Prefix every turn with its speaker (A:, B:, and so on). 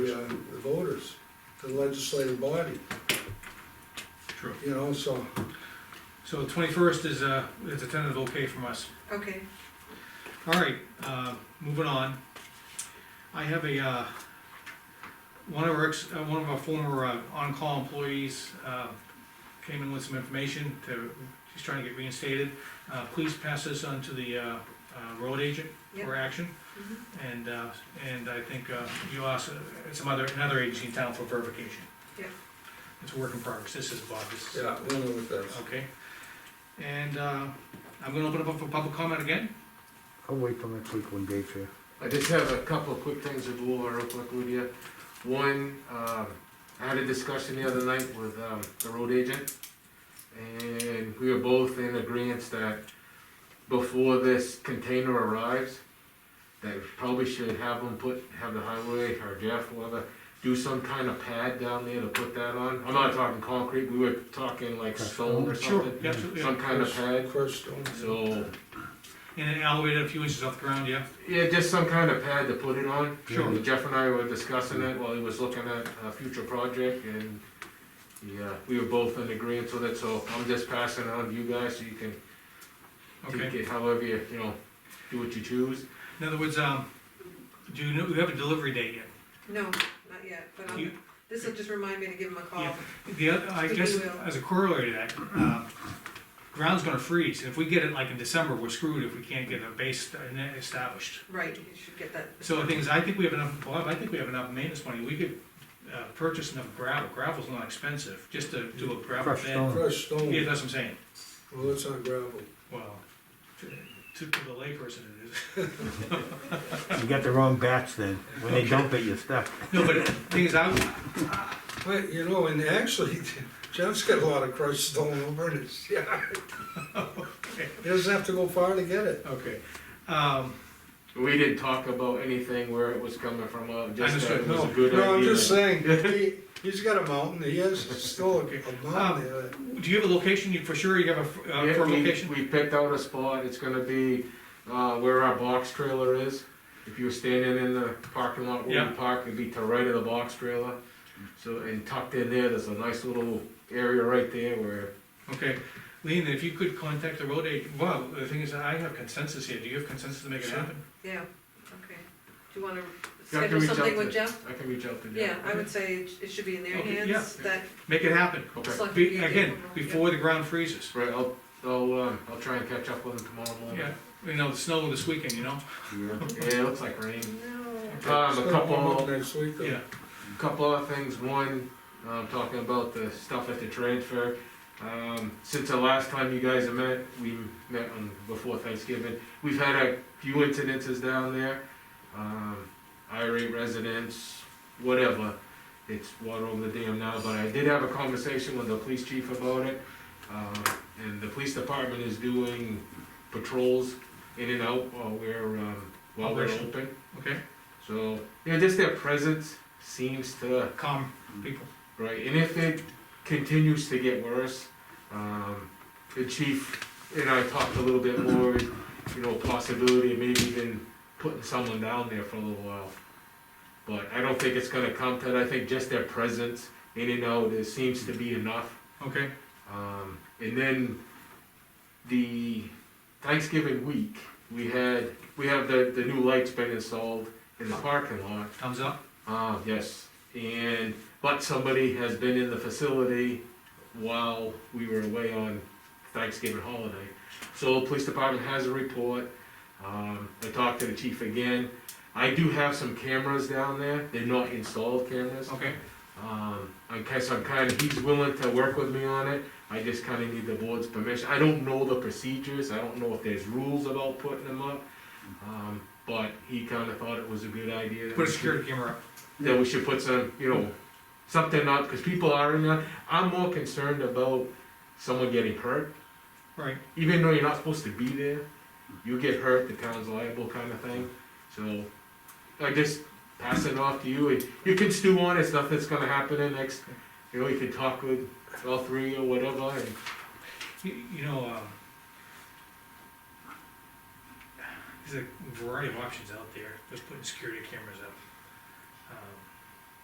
A: the uh, the voters, the legislative body,
B: True.
A: you know, so.
B: So twenty-first is a, is a tentative okay from us.
C: Okay,
B: All right, uh, moving on. I have a, uh, one of our, ex- uh, one of our former uh, on-call employees uh, came in with some information to, she's trying to get reinstated. Uh, Please pass this on to the uh, uh, road agent for action.
C: mhm,
B: And, uh, and I think uh, you also, some other, another agency in town for verification.
C: Yeah.
B: It's a work in progress. This is Bob, this is.
A: Yeah, we'll know what that's.
B: Okay, and, uh, I'm gonna open it up for public comment again,
D: I'll wait till next week when Dave's here.
E: I just have a couple of quick things to go over real quick with you. One, um, I had a discussion the other night with, um, the road agent, and we were both in agreement that before this container arrives, that we probably should have them put, have the highway or Jeff, whoever, do some kind of pad down there to put that on. I'm not talking concrete, we were talking like
D: Okay.
E: stone or something,
B: Yeah, absolutely,
E: some kind of pad,
A: Crushed stone.
E: so,
B: and then elevate it a few inches off the ground, yeah,
E: yeah, just some kind of pad to put it on.
B: sure,
E: And Jeff and I were discussing it while he was looking at a future project and, yeah, we were both in agreement with it, so I'm just passing it on to you guys so you can take
B: okay.
E: it however you, you know, do what you choose.
B: In other words, um, do you know, we have a delivery date yet?
C: no, not yet, but
B: You-
C: this'll just remind me to give him a call.
B: Yeah. The, other- I
C: Um, We
B: guess,
C: will.
B: as a corollary to that, uh, ground's gonna freeze, if we get it like in December, we're screwed if we can't get a base established.
C: Right, you should get that.
B: So the thing is, I think we have enough, Bob, I think we have enough maintenance money, we could, uh, purchase enough gravel, gravel's not expensive, just to do a gravel
D: Crushed
B: bed.
D: stone.
A: Crushed
B: Yeah,
A: stone,
B: that's what I'm saying.
A: well, it's on gravel.
B: Well, to, to the layperson it is.
D: You got the wrong batch then. When they dump it, you're stuck.
B: No, but the thing is, I,
A: But, you know, and actually, Jeff's got a lot of crushed stone over in his yard. He doesn't have to go far to get it.
B: okay, um,
E: We didn't talk about anything where it was coming from, uh, just that
B: Understood.
E: it was
A: No,
E: a good idea.
A: no, I'm just saying, he, he's got a mountain, he has still a mountain
E: Um,
A: there.
B: do you have a location, you, for sure you have a, uh,
E: Yeah,
B: firm
E: we-
B: location?
E: We picked out a spot, it's gonna be, uh, where our box trailer is. If you were standing in the parking lot where
B: Yeah.
E: we park, it'd be to right of the box trailer. So, and tucked in there, there's a nice little area right there where,
B: Okay, Lean, if you could contact the road agent, well, the thing is, I have consensus here, do you have consensus to make it
E: Sure.
B: happen?
C: Yeah, okay. Do you wanna
E: I can
C: schedule
E: reach out
C: something
E: to,
C: with Jeff?
E: I can reach out to Jeff.
C: Yeah, I would say it it should be in their
B: Okay, yeah.
C: hands, that.
B: Make it happen,
E: Okay,
C: select-
B: be, again, before the ground freezes,
E: right, I'll, I'll, um, I'll try and catch up with him tomorrow
B: yeah,
E: morning.
B: you know, the snow this weekend, you know?
E: Yeah, it looks like rain.
C: No,
E: Um,
A: It's
E: a
A: gonna warm up
E: couple,
A: Next week, though.
B: Yeah,
E: couple other things, one, um, talking about the stuff at the transfer. Um, since the last time you guys have met, we met on, before Thanksgiving, we've had a few incidences down there. Um, irate residents, whatever, it's water over the dam now, but I did have a conversation with the police chief about it. Um, and the police department is doing patrols in and out while we're, um, while we're
B: Operation.
E: open.
B: okay,
E: So, yeah, just their presence seems to,
B: calm people,
E: right, and if it continues to get worse, um, the chief and I talked a little bit more, you know, possibility of maybe even putting someone down there for a little while. But I don't think it's gonna come to that, I think just their presence in and out, it seems to be enough.
B: okay,
E: Um, and then the Thanksgiving week, we had, we have the, the new lights been installed in the parking lot.
B: thumbs up,
E: Uh, yes, and, but somebody has been in the facility while we were away on Thanksgiving holiday. So the police department has a report, um, I talked to the chief again. I do have some cameras down there, they're not installed cameras.
B: okay,
E: Um, I guess I'm kinda, he's willing to work with me on it, I just kinda need the board's permission, I don't know the procedures, I don't know if there's rules about putting them up. Um, but he kinda thought it was a good idea. that
B: put a
E: we should-
B: security camera up,
E: that we should put some, you know, something up, because people are in that. I'm more concerned about someone getting hurt,
B: right,
E: even though you're not supposed to be there. You get hurt, the town's liable kind of thing. So I just pass it off to you and you can stew on it, it's nothing that's gonna happen in next, you know, you can talk with all three or whatever and
B: you, you know, um, there's a variety of options out there, just putting security cameras up. Um,